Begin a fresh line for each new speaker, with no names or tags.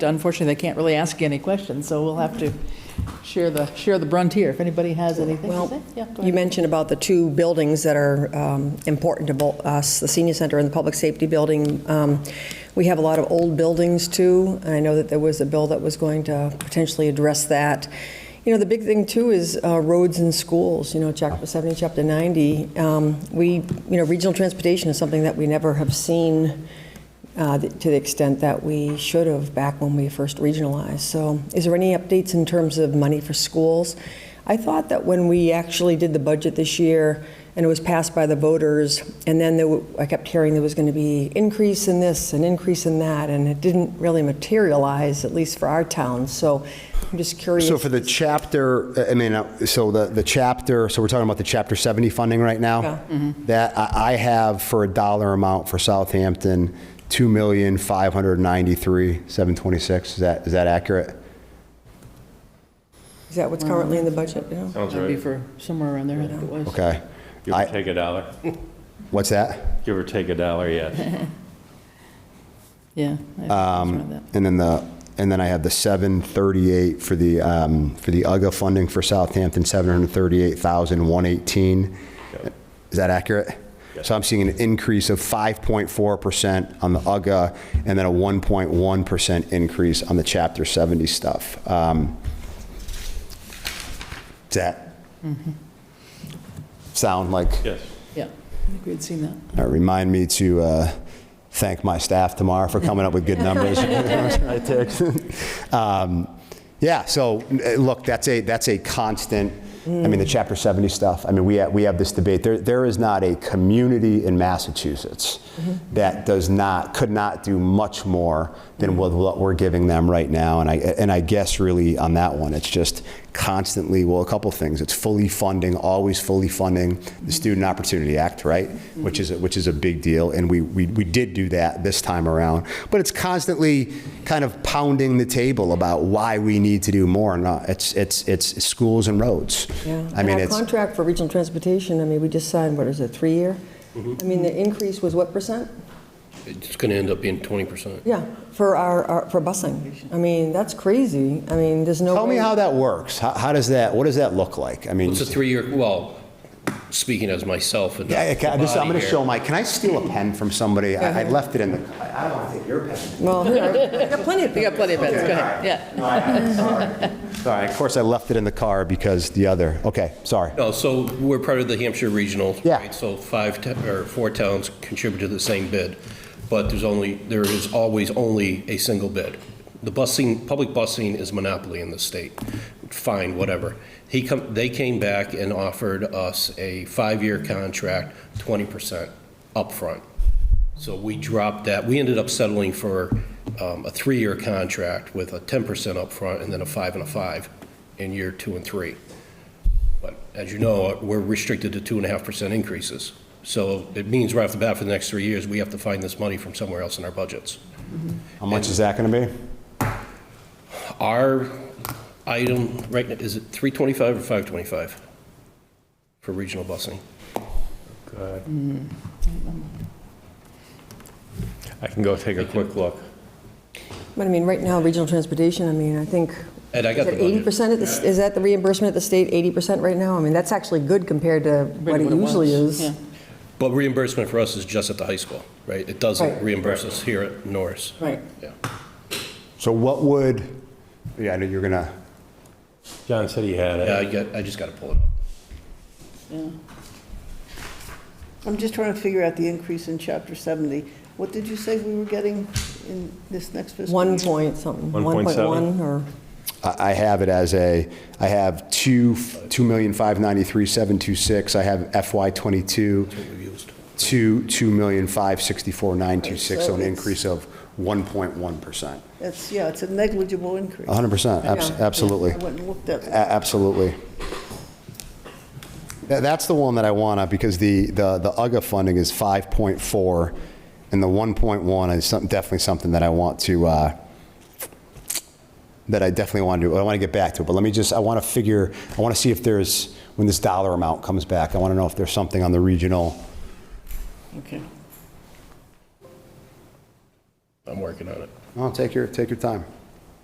unfortunately, they can't really ask you any questions, so we'll have to share the, share the brunt here. If anybody has anything to say,
Well,
yeah, go
you
ahead.
mentioned about the two buildings that are um, important to both us, the senior center and the public safety building. Um, We have a lot of old buildings too, and I know that there was a bill that was going to potentially address that. You know, the big thing too is uh, roads and schools, you know, chapter 70, chapter 90. Um, We, you know, regional transportation is something that we never have seen uh, th- to the extent that we should have back when we first regionalized. So is there any updates in terms of money for schools? I thought that when we actually did the budget this year and it was passed by the voters, and then there, wa- I kept hearing there was going to be increase in this and increase in that, and it didn't really materialize, at least for our town. So I'm just curious.
So for the chapter, I mean, uh, so the, the chapter, so we're talking about the chapter 70 funding right
Yeah.
now? That I, I have for a dollar amount for Southampton, 2,593,726. Is that, is that accurate?
Is that what's currently in the budget? you know?
Sounds
That'd be
right.
for somewhere around there, I think it was.
Okay.
Give or
I,
take a dollar.
what's that?
Give or take a dollar, yes.
Yeah. I think it was
Um,
around that.
Um, And then the, and then I have the 738 for the, um, for the UGA funding for Southampton, 738,118. Is that accurate? So I'm seeing an increase of 5.4% on the UGA and then a 1.1% increase on the Chapter 70 stuff. Um, Does that sound like?
Yes.
Yeah, I think we'd seen that.
Uh, Remind me to uh, thank my staff tomorrow for coming up with good numbers. Right, Tig? Um, Yeah, so, uh, look, that's a, that's a constant, I mean, the Chapter 70 stuff, I mean, we have, we have this debate. There, there is not a community in Massachusetts that does not, could not do much more than what- what we're giving them right now. And I, and I guess really on that one, it's just constantly, well, a couple things. It's fully funding, always fully funding the Student Opportunity Act, right? Which is, a- which is a big deal. And we, we, we did do that this time around. But it's constantly kind of pounding the table about why we need to do more. And uh, it's, it's, it's schools and roads.
Yeah.
I
And
mean,
our
it's,
contract for regional transportation, I mean, we just signed, what is it, three-year?
Mm-hmm.
I mean, the increase was what percent?
It's going to end up being 20%.
Yeah, for our, our- for busing. I mean, that's crazy. I mean, there's no way.
tell me how that works. How, how does that, what does that look like? I mean,
It's a three-year, well, speaking as myself and the
Yeah, I ca- this- I'm
body
going to
here,
show my, can I steal a pen from somebody? I I left it in the, I I don't want to take your pen.
Well, here, I got plenty of
We got
people.
plenty of beds, go ahead, yeah.
No, I- I'm sorry. Sorry, of course, I left it in the car because the other, okay, sorry.
No, Oh, so we're part of the Hampshire Regional.
Yeah.
right? So five, to- or four towns contribute to the same bid, but there's only, there is always only a single bid. The busing, public busing is monopoly in the state. Fine, whatever. He come, they came back and offered us a five-year contract, 20% upfront. So we dropped that. We ended up settling for um, a three-year contract with a 10% upfront and then a five and a five in year two and three. But as you know, we're restricted to two and a half percent increases. So it means right off the bat for the next three years, we have to find this money from somewhere else in our budgets.
How much is that going to be?
Our item, right, now is it 325 or 525 for regional busing?
Mm. I can go take a quick look.
But I mean, right now, regional transportation, I mean, I think.
Ed, I got the
Is it
budget.
80% of this, is that the reimbursement at the state, 80% right now? I mean, that's actually good compared to what
Compared
it
to
usually
was,
is.
yeah.
But reimbursement for us is just at the high school, right? It
Right.
doesn't reimburse us here at Norris.
Right.
Yeah.
So what would, yeah, I know you're going to,
John said he had
Yeah,
it.
I got, I just got to pull it up.
I'm just trying to figure out the increase in chapter 70. What did you say we were getting in this next fiscal year?
One point something,
1.7.
1.1 or,
I I have it as a, I have two, 2,593,726. I have FY '22, two, 2,564,926, so an
Right, so it's-
increase of 1.1%.
It's, yeah, it's a negligible increase.
100%, abs-
Yeah.
absolutely.
I went and looked at
A-
it.
Absolutely. Tha- That's the one that I want to, because the, the, the UGA funding is 5.4, and the 1.1 is some- definitely something that I want to, uh, that I definitely want to do. I want to get back to it, but let me just, I want to figure, I want to see if there's, when this dollar amount comes back, I want to know if there's something on the regional.
Okay.
I'm working on it.
Oh, take your, take your time.